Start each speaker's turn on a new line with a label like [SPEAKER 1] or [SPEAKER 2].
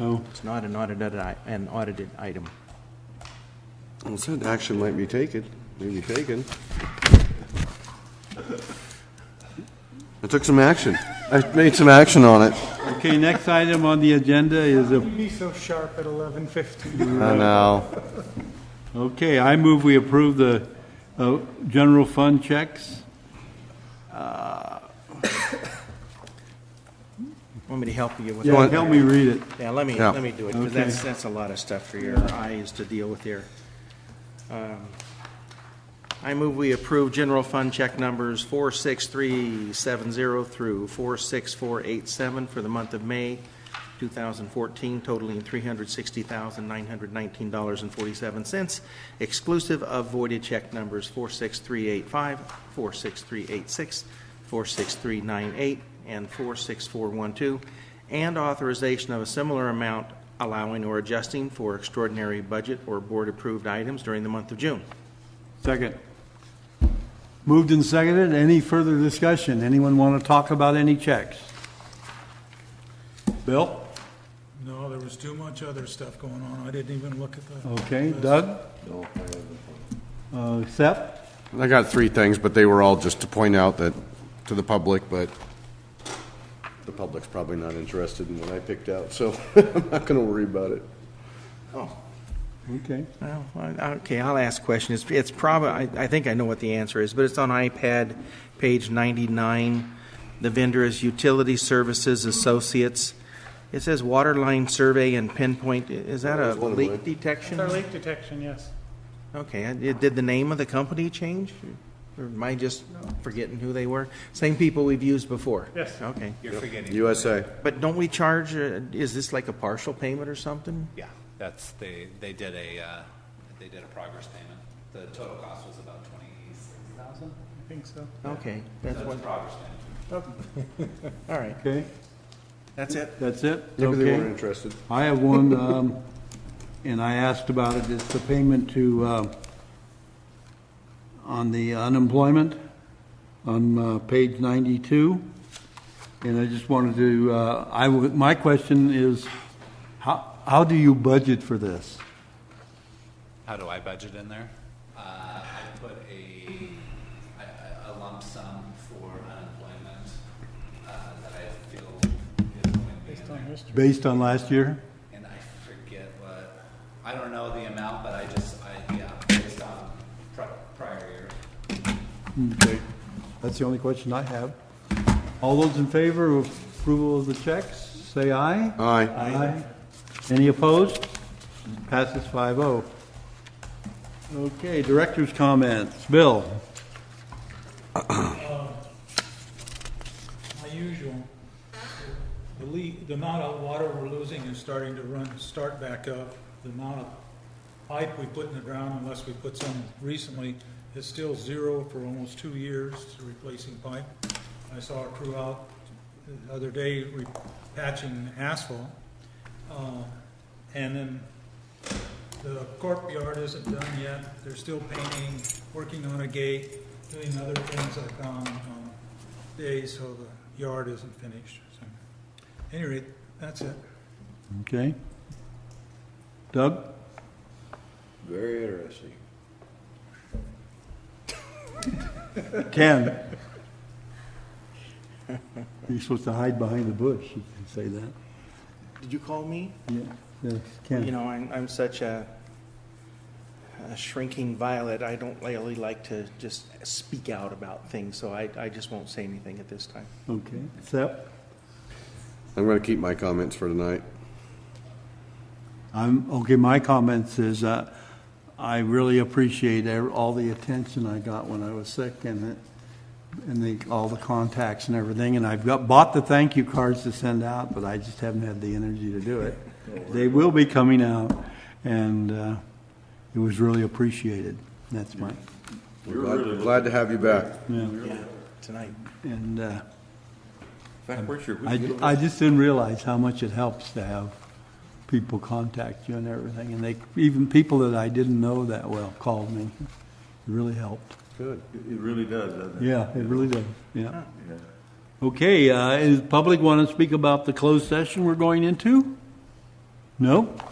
[SPEAKER 1] Oh,
[SPEAKER 2] It's not an audited, i- an audited item.
[SPEAKER 3] Well, said action might be taken, may be taken. I took some action. I made some action on it.
[SPEAKER 1] okay, next item on the agenda is a,
[SPEAKER 4] Be so sharp at 11:50.
[SPEAKER 3] I know.
[SPEAKER 1] okay, I move we approve the uh, general fund checks.
[SPEAKER 2] Want me to help you with
[SPEAKER 1] Yeah,
[SPEAKER 2] that?
[SPEAKER 1] help me read it.
[SPEAKER 2] Yeah, let me,
[SPEAKER 3] Yeah.
[SPEAKER 2] let me do it, because
[SPEAKER 1] Okay.
[SPEAKER 2] that's, that's a lot of stuff for your eyes to deal with here. Um, I move we approve general fund check numbers 46370 through 46487 for the month of May 2014 totaling $360,919.47, exclusive of voided check numbers 46385, 46386, 46398, and 46412, and authorization of a similar amount allowing or adjusting for extraordinary budget or board-approved items during the month of June.
[SPEAKER 1] Second. Moved and seconded. Any further discussion? Anyone want to talk about any checks? Bill?
[SPEAKER 4] No, there was too much other stuff going on. I didn't even look at the.
[SPEAKER 1] Okay. Doug? Uh, Seth?
[SPEAKER 3] I got three things, but they were all just to point out that, to the public, but the public's probably not interested in what I picked out, so I'm not gonna worry about it.
[SPEAKER 1] Okay.
[SPEAKER 2] Well, I- okay, I'll ask a question. It's, it's probably, I, I think I know what the answer is, but it's on iPad, page 99. The vendor is Utility Services Associates. It says water line survey and pinpoint. I- Is that a
[SPEAKER 3] That was one of mine.
[SPEAKER 2] leak detection?
[SPEAKER 4] leak detection, yes.
[SPEAKER 2] Okay, and it- did the name of the company change? Or am I just forgetting who they were? Same people we've used before?
[SPEAKER 4] Yes.
[SPEAKER 2] Okay.
[SPEAKER 3] USA.
[SPEAKER 2] But don't we charge, uh, is this like a partial payment or something?
[SPEAKER 5] Yeah, that's, they, they did a, uh, they did a progress payment. The total cost was about twenty-six thousand.
[SPEAKER 4] I think so.
[SPEAKER 2] Okay, that's
[SPEAKER 5] That's
[SPEAKER 2] what,
[SPEAKER 5] progress payment.
[SPEAKER 2] all right,
[SPEAKER 1] Okay,
[SPEAKER 2] that's it.
[SPEAKER 1] that's it?
[SPEAKER 3] Maybe they
[SPEAKER 1] Okay.
[SPEAKER 3] weren't interested.
[SPEAKER 1] I have one, um, and I asked about it, it's the payment to, uh, on the unemployment, on uh, page 92. And I just wanted to, uh, I, would- my question is, how, how do you budget for this?
[SPEAKER 5] How do I budget in there? Uh, I put a, a- a lump sum for unemployment, uh, that I feel is going to be in there.
[SPEAKER 1] Based on last year?
[SPEAKER 5] And I forget what, I don't know the amount, but I just, I, yeah, based on pri- prior year.
[SPEAKER 1] Okay, That's the only question I have. All those in favor of approval of the checks, say aye.
[SPEAKER 3] Aye.
[SPEAKER 1] Aye. Any opposed? Passes 5-0. Okay, director's comments. Bill?
[SPEAKER 4] My usual, the leak, the amount of water we're losing is starting to run, start back up. The amount of pipe we put in the ground, unless we put some recently, is still zero for almost two years to replacing pipe. I saw a crew out the other day re- patching asphalt. Uh, And then The courtyard isn't done yet, they're still painting, working on a gate, doing other things like on, on days, so the yard isn't finished. So, Any rate, that's it.
[SPEAKER 1] Okay. Doug?
[SPEAKER 3] Very interesting.
[SPEAKER 1] Ken? You're supposed to hide behind the bush, you can say that.
[SPEAKER 2] Did you call me?
[SPEAKER 1] Yeah, Yes,
[SPEAKER 2] You
[SPEAKER 1] Ken.
[SPEAKER 2] know, I'm, I'm such a, a shrinking violet. I don't really like to just speak out about things, so I, I just won't say anything at this time.
[SPEAKER 1] Okay. Sep?
[SPEAKER 3] I'm gonna keep my comments for tonight.
[SPEAKER 1] I'm, okay, my comments is, uh, I really appreciate ev- all the attention I got when I was sick and it, and the, all the contacts and everything, and I've got, bought the thank you cards to send out, but I just haven't had the energy to do it. They will be coming out, and, uh, it was really appreciated. That's my,
[SPEAKER 3] We're glad- glad to have you back.
[SPEAKER 2] Yeah, tonight.
[SPEAKER 1] and, uh,
[SPEAKER 6] In fact, Richard, we
[SPEAKER 1] I,
[SPEAKER 6] could-
[SPEAKER 1] I just didn't realize how much it helps to have people contact you and everything, and they, even people that I didn't know that well called me. It really helped.
[SPEAKER 3] Good.
[SPEAKER 6] it really does, doesn't it?
[SPEAKER 1] Yeah, it really did, yeah. Okay, uh, is public want to speak about the closed session we're going into? No?